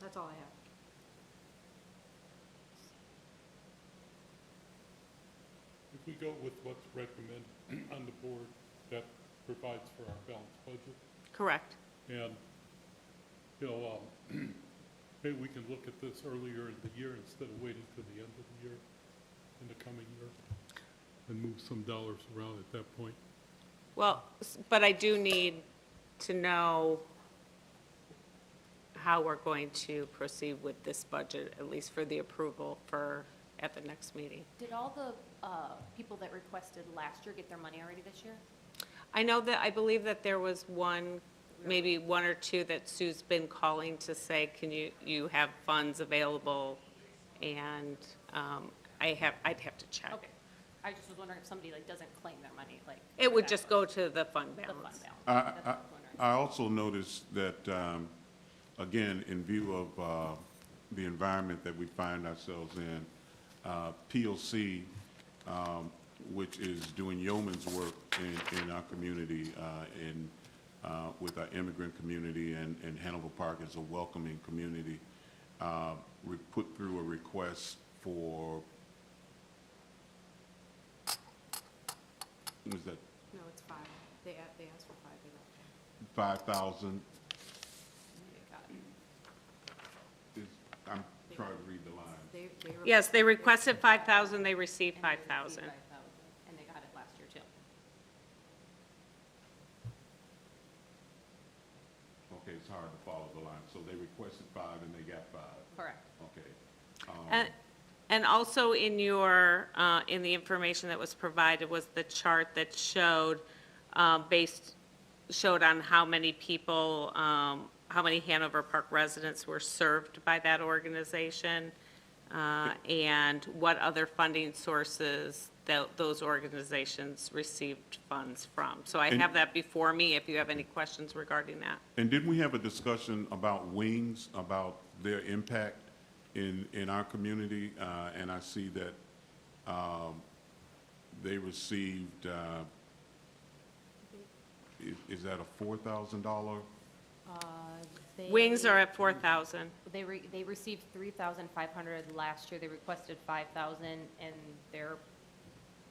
That's all I have. If we go with what's recommended on the board, that provides for our balanced budget. Correct. And, you know, um, maybe we can look at this earlier in the year instead of waiting to the end of the year, in the coming year, and move some dollars around at that point. Well, s- but I do need to know how we're going to proceed with this budget, at least for the approval for, at the next meeting. Did all the uh, people that requested last year get their money already this year? I know that, I believe that there was one, maybe one or two that Sue's been calling to say, can you, you have funds available? And um, I have, I'd have to check. Okay. I just was wondering if somebody like doesn't claim their money, like. It would that- just go to the fund The fund balance. balance. That's I- what I was wondering. I also noticed that, um, again, in view of uh, the environment that we find ourselves in, uh, PLC, um, which is doing yeoman's work in, in our community, uh, in, uh, with our immigrant community, and and Hannibal Park is a welcoming community, uh, we put through a request for, what is that, No, it's five. They, a- they asked for five, they got five. 5,000 They got it. is, I'm trying to read the line. They, they. were- Yes, they requested 5,000, they received And they received 5,000. 5,000, And they got it last year too. Okay, it's hard to follow the line. So they requested five and they got five. Correct. Okay. And, and also in your, uh, in the information that was provided was the chart that showed, um, based, showed on how many people, um, how many Hanover Park residents were served by that organization, uh, and what other funding sources tho- those organizations received funds from. So I And- have that before me if you have any questions regarding that. And didn't we have a discussion about wings, about their impact in, in our community? Uh, and I see that, um, they received, uh, is, is that a four thousand dollar? Wings are at 4,000. They re, they received three thousand five hundred last year. They requested five thousand and they're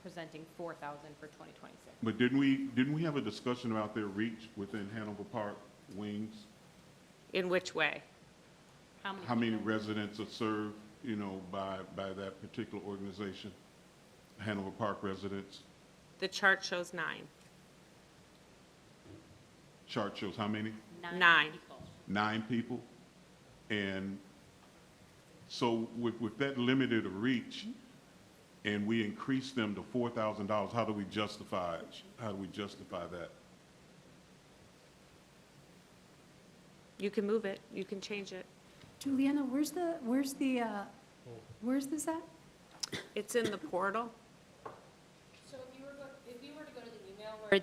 presenting four thousand for twenty twenty-six. But didn't we, didn't we have a discussion about their reach within Hanover Park, wings? In which way? How many people? residents are served, you know, by, by that particular organization? Hanover Park residents? The chart shows nine. Chart shows how many? Nine. people. Nine people? And so with, with that limited a reach, and we increase them to four thousand dollars, how do we justify, how do we justify that? You can move it, you can change it. Juliana, where's the, where's the, uh, where's this at? It's in the portal. So if you were, go- if you were to go to the email where.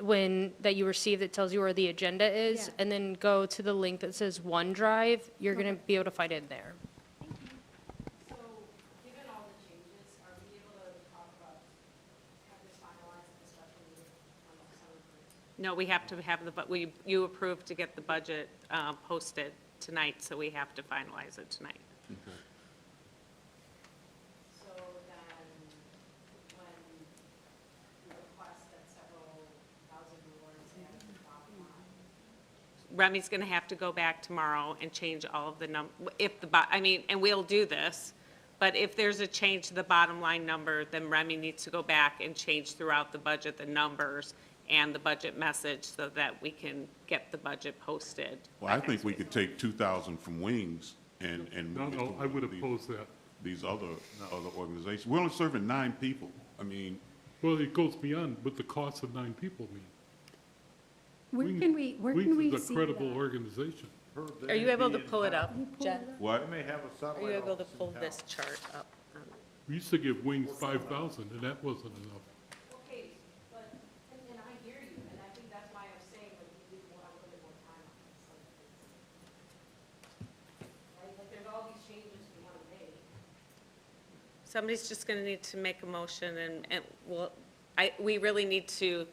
When, that you received that tells you where the agenda is, Yeah. and then go to the link that says OneDrive, you're gonna be able to find it there. So, given all the changes, are we able to talk about, have this finalized um, at the special meeting on the summer break? No, we have to have the, but we, you approved to get the budget uh, posted tonight, so we have to finalize it tonight. So then, when we request that several thousand awards and the bottom line, Remy's going to have to go back tomorrow and change all of the num, if the, bo- I mean, and we'll do this, but if there's a change to the bottom line number, then Remy needs to go back and change throughout the budget, the numbers and the budget message so that we can get the budget posted. Well, I think we could take two thousand from Wings and, and. No, move it no, to I would these- oppose that. These other, other organizations. We're only serving nine people. I mean, Well, it goes beyond what the cost of nine people mean. Where can we, where can we see that? Wings is a credible organization. Are you able to pull it up, Can you pull Jen? it up? what? may have a Are you able to pull this chart up? We used to give Wings five thousand, and that wasn't enough. okay, but, and, and I hear you, and I think that's why I'm saying, like, we need more, a little bit more time on this. like, it's- Right, like, there's all these changes we want to make. Somebody's just going to need to make a motion, and, and we'll, I, we really need to